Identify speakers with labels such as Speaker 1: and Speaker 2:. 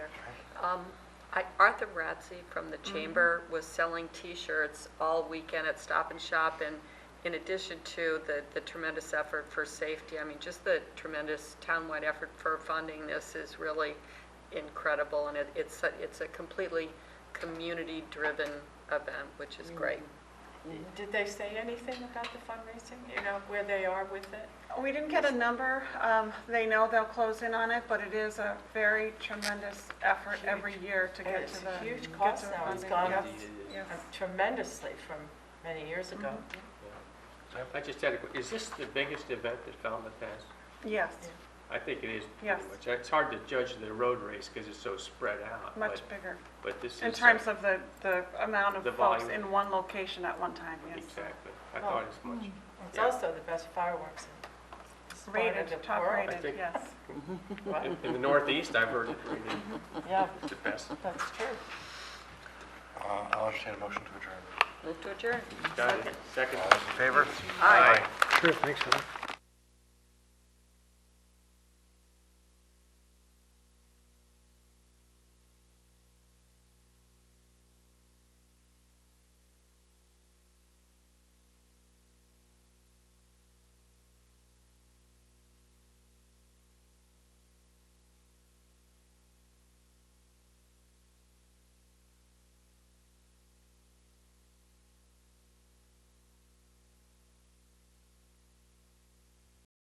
Speaker 1: Um, I, Arthur Ratsey from the Chamber was selling T-shirts all weekend at Stop and Shop, and in addition to the, the tremendous effort for safety, I mean, just the tremendous townwide effort for funding this is really incredible, and it, it's, a- it's a completely community-driven event, which is great.
Speaker 2: Did they say anything about the fundraising, you know, where they are with it?
Speaker 3: We didn't get a number. Um, They know they'll close in on it, but it is a very tremendous effort every year to
Speaker 2: And
Speaker 3: get
Speaker 2: it's
Speaker 3: to
Speaker 2: a
Speaker 3: the.
Speaker 2: huge
Speaker 3: get
Speaker 2: cost
Speaker 3: to the
Speaker 2: now. It's
Speaker 3: funding.
Speaker 2: gone
Speaker 3: Yes,
Speaker 2: up.
Speaker 3: yes.
Speaker 2: Uh, Tremendously from many years ago.
Speaker 4: I- I just had a, que- is this the biggest event that Falmouth has?
Speaker 3: Yes,
Speaker 4: I think it is
Speaker 3: Yes.
Speaker 4: pretty much. It's hard to judge the road race because it's so spread out.
Speaker 3: much
Speaker 4: but-
Speaker 3: bigger.
Speaker 4: But this is.
Speaker 3: In
Speaker 4: uh,
Speaker 3: terms of the, the amount
Speaker 4: The
Speaker 3: of folks
Speaker 4: volume.
Speaker 3: in one location at one time, yes.
Speaker 4: Exactly. I
Speaker 3: Oh.
Speaker 4: thought it's much.
Speaker 2: It's
Speaker 4: Yeah.
Speaker 2: also the best fireworks in Sparta, the
Speaker 3: Rated, top
Speaker 2: world.
Speaker 4: I
Speaker 3: rated,
Speaker 4: think-
Speaker 3: yes.
Speaker 4: In- In the Northeast, I've heard it rated
Speaker 2: Yeah,
Speaker 4: the best.
Speaker 2: that's true.
Speaker 5: Uh, I'll entertain a motion to adjourn.
Speaker 1: Move to adjourn.
Speaker 4: Got it? Second.
Speaker 5: All those in favor?
Speaker 1: Aye.
Speaker 5: Sure, thanks,